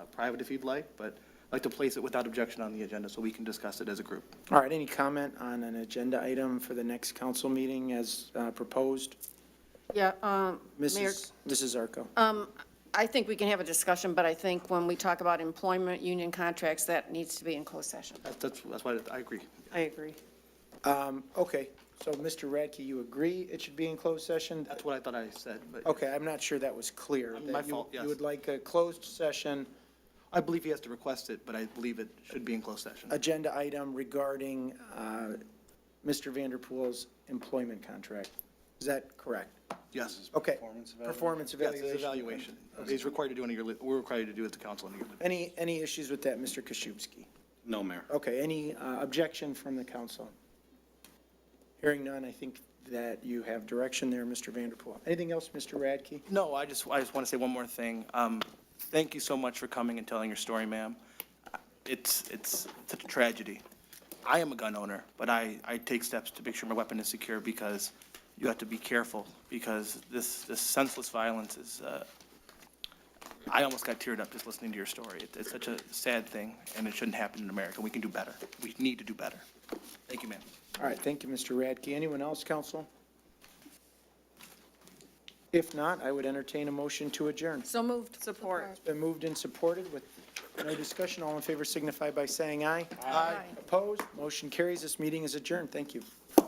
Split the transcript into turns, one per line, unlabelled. uh, private if you'd like, but I'd like to place it without objection on the agenda so we can discuss it as a group.
All right, any comment on an agenda item for the next council meeting as uh, proposed?
Yeah, um, Mayor,
Mrs. Mrs. Zarco?
I think we can have a discussion, but I think when we talk about employment, union contracts, that needs to be in closed session.
That's, that's that's why I agree.
I agree.
Um, Okay, so Mr. Radke, you agree it should be in closed session?
That's what I thought I said, but
Okay, I'm not sure that was clear.
My
that you-
fault, yes.
You would like a closed session
I believe he has to request it, but I believe it should be in closed session.
agenda item regarding uh, Mr. Vanderpool's employment contract. Is that correct?
Yes.
Okay.
Performance evaluation.
Performance
Yes, it's
evaluation.
evaluation. He's required to do it on a yearly, we're required to do it at the council on a yearly.
Any, any issues with that, Mr. Koszywski?
No, Mayor.
Okay, any uh, objection from the council? Hearing none, I think that you have direction there, Mr. Vanderpool. Anything else, Mr. Radke?
No, I just, I just want to say one more thing. Um, Thank you so much for coming and telling your story, ma'am. It's, it's such a tragedy. I am a gun owner, but I, I take steps to make sure my weapon is secure because you have to be careful because this, this senseless violence is, uh, I almost got teared up just listening to your story. It- It's such a sad thing and it shouldn't happen in America. We can do better. We need to do better. Thank you, ma'am.
All right, thank you, Mr. Radke. Anyone else, council? If not, I would entertain a motion to adjourn.
So moved. Support.
Been moved and supported with no discussion. All in favor signify by saying aye.
Aye.
Opposed? Motion carries. This meeting is adjourned. Thank you.